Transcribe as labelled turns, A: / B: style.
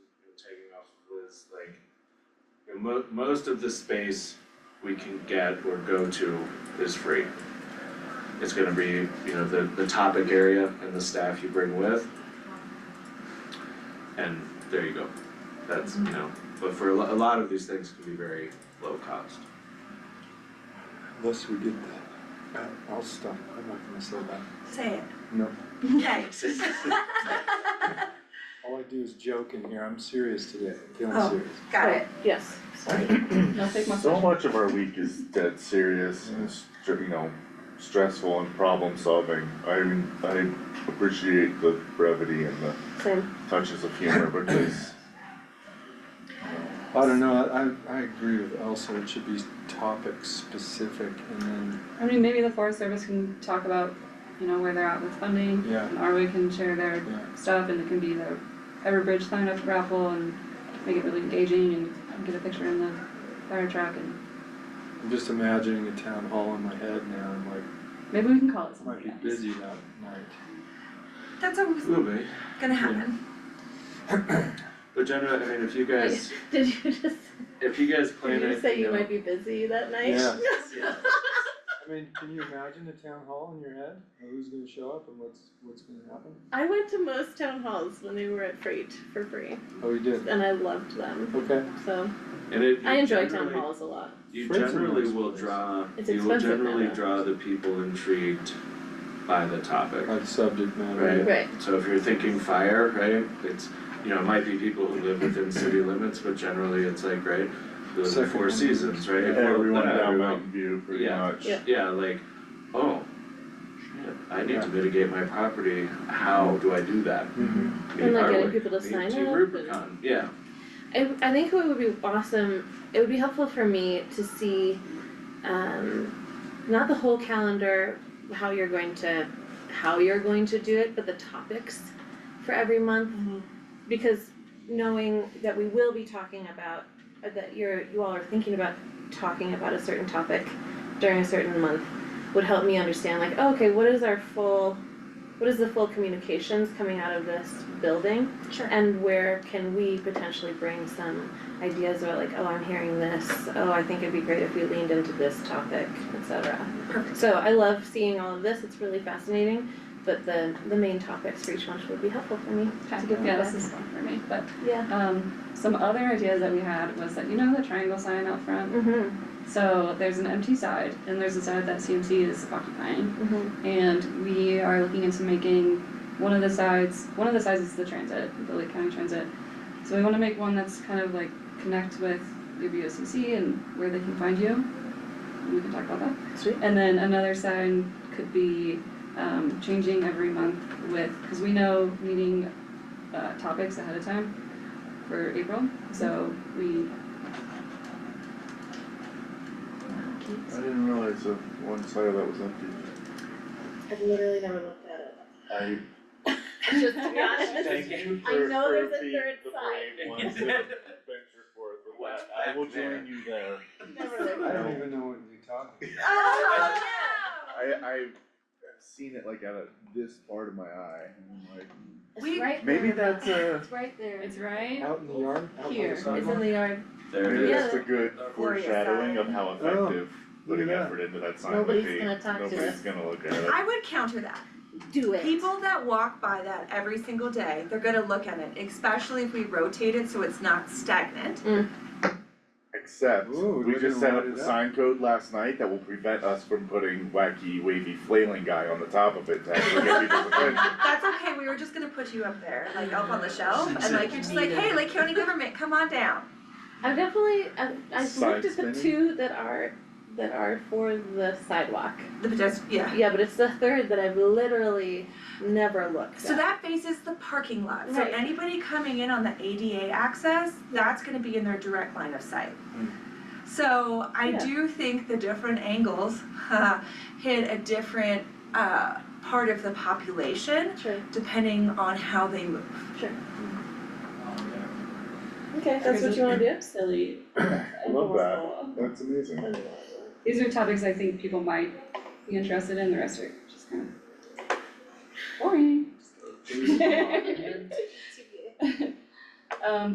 A: off was like, you know, mo- most of the space we can get or go to is free. It's gonna be, you know, the the topic area and the staff you bring with. And there you go, that's, you know, but for a lo- a lot of these things can be very low cost.
B: Unless we did that, Uh, I'll stop, I'm not gonna say that.
C: Say it.
B: No,
C: Yikes.
B: all I do is joke in here, I'm serious today, I'm feeling
C: Oh.
B: serious.
C: Got it.
D: Yes, sorry. No, take my.
E: So much of our week is dead serious and str- you know, stressful and problem solving. I mean, I appreciate the brevity and the
D: Same.
E: touches of humor because
B: I don't know, I, I agree with Elsa, it should be topic specific and then,
F: I mean, maybe the Forest Service can talk about, you know, where they're at with funding.
B: Yeah.
F: And Arway can share their
B: yeah.
F: stuff and it can be the Everbridge sign up raffle and make it really engaging and get a picture in the fire truck and
B: I'm just imagining a town hall in my head now, I'm like,
F: maybe we can call it
B: I might
F: something
B: be
F: else.
B: busy that night.
C: That's always
A: Will be,
C: gonna happen.
A: but generally, I mean, if you guys,
D: Did you just,
A: if you guys plan
D: did
A: it,
D: you say
A: you
D: you
A: know-
D: might be busy that night?
B: Yeah.
A: Yeah.
B: I mean, can you imagine a town hall in your head, who's gonna show up and what's, what's gonna happen?
D: I went to most town halls when they were at Freight for free,
B: Oh, you did,
D: and I loved them,
B: okay,
D: so
A: and it,
D: I
A: you
D: enjoy town
A: generally-
D: halls a lot.
A: You
B: Friends are
A: generally
B: nice
A: will
B: place.
A: draw,
D: It's
A: you will
D: expensive now,
A: generally
D: though.
A: draw the people intrigued by the topic.
B: like subject matter.
A: Right.
D: Right,
A: So if you're thinking fire, right, it's, you know, it might be people who live within city limits, but generally it's like, right, the
B: Second
A: four
B: one.
A: seasons, right? Well,
E: everyone
A: not
E: down
A: everyone.
E: Mountain View pretty
A: Yeah.
E: much.
D: Yeah.
A: Yeah, like, oh, shit, I need to mitigate my property, how do I do that?
B: Mhm.
A: I mean,
D: and like
A: are
D: getting
A: we-
D: people to
A: need
D: sign up
A: to
D: and.
A: Rubicon, yeah,
D: I, I think what would be awesome, it would be helpful for me to see, um, not the whole calendar, how you're going to, how you're going to do it, but the topics for every month. Because knowing that we will be talking about, uh, that you're, you all are thinking about talking about a certain topic during a certain month would help me understand like, oh, okay, what is our full, what is the full communications coming out of this building?
C: Sure.
D: And where can we potentially bring some ideas about like, oh, I'm hearing this, oh, I think it'd be great if we leaned into this topic, et cetera.
C: Perfect.
D: So I love seeing all of this, it's really fascinating, but the, the main topics for each one would be helpful for me.
F: Okay,
D: good
F: yeah,
D: feedback.
F: this is one for me, but,
D: Yeah.
F: um, some other ideas that we had was that, you know, the triangle sign out front?
D: Mm-hmm,
F: So there's an empty side and there's a side that CMC is occupying.
D: mm-hmm,
F: and we are looking into making one of the sides one of the sides is the transit the lake county transit so we want to make one that's kind of like connect with your BOCC and where they can find you and we can talk about that
D: sweet.
F: and then another sign could be um, changing every month with because we know meeting uh, topics ahead of time for april so we
E: I didn't realize that one side of that was empty.
D: I've literally never looked at it.
E: I
D: Just to be honest,
E: thank you
D: I
E: for
D: know
E: for
D: there's a
E: the
D: third
E: the
D: side.
E: brave ones that venture forth with
A: Well,
E: that. I will
A: I'm there.
E: join you there.
D: never
B: I
D: looked at it.
B: don't even know what you're talking about.
C: Oh,
E: I I've seen it like out of this part of my eye and I'm like,
D: It's right there.
E: maybe that's uh, a,
D: It's right there.
F: it's right
B: Out in the yard, out by
F: Here.
B: the
F: It's
D: It's in
B: sidewalk?
D: the yard.
A: there it
E: maybe
A: is.
E: that's a good
C: Glorious
E: foreshadowing of how
B: side. Oh,
E: effective
B: look at
E: putting
B: that.
E: effort into that sign would be.
D: Nobody's gonna talk to
E: Nobody's
D: us.
E: gonna look at it.
C: I would counter that.
D: Do it.
C: People that walk by that every single day, they're gonna look at it, especially if we rotate it so it's not stagnant.
E: Except,
B: Ooh,
E: we
B: we're
E: just
B: gonna
E: set up
B: light it
E: the
B: up.
E: sign code last night that will prevent us from putting wacky wavy flailing guy on the top of it to actually get people's attention.
C: That's okay, we were just gonna put you up there, like up on the shelf, and like, you're just like, hey, Lake County government, come on down.
D: I've definitely, I've, I've
E: Side
D: looked at the
E: spinning?
D: two that are, that are for the sidewalk.
C: The pedestrian, yeah.
D: Yeah, but it's the third that I've literally never looked
C: So
D: at.
C: that faces the parking lot, so
D: Right.
C: anybody coming in on the ADA access, that's gonna be in their direct line of sight. So I
D: Mm. Yeah.
C: do think the different angles hit a different uh part of the population
D: Sure,
C: depending on how they move.
D: okay, that's what you wanna do?
F: silly
E: Love that. That's amazing.
F: These are topics I think people might be interested in, the rest are just kind of boring. Um,